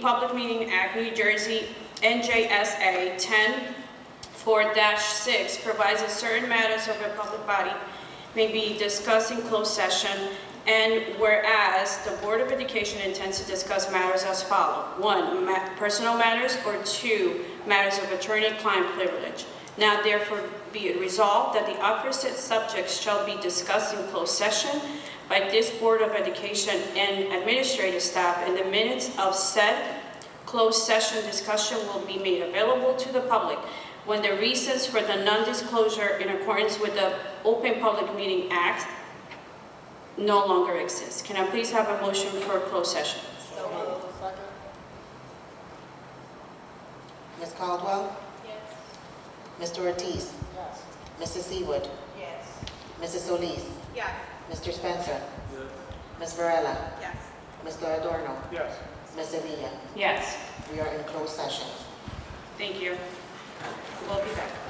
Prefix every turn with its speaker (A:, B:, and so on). A: Public Meeting Act, New Jersey, NJSA 10-4-6 provides that certain matters of a public body may be discussed in closed session, and whereas the Board of Education intends to discuss matters as follow. One, ma- personal matters, or two, matters of attorney-client privilege. Now therefore be it resolved that the opposite subjects shall be discussed in closed session by this Board of Education and administrative staff, and the minutes of said closed session discussion will be made available to the public when the reasons for the non-disclosure in accordance with the Open Public Meeting Act no longer exist. Can I please have a motion for closed session?
B: Ms. Caldwell? Yes. Mr. Ortiz? Yes. Mrs. Seawood? Yes. Mrs. Solis?
C: Yes.
B: Mr. Spencer? Ms. Varela?
C: Yes.
B: Mr. Adorno?
D: Yes.
B: Ms. Sevilla?
A: Yes,
B: We are in closed session.
A: thank you. We'll be back.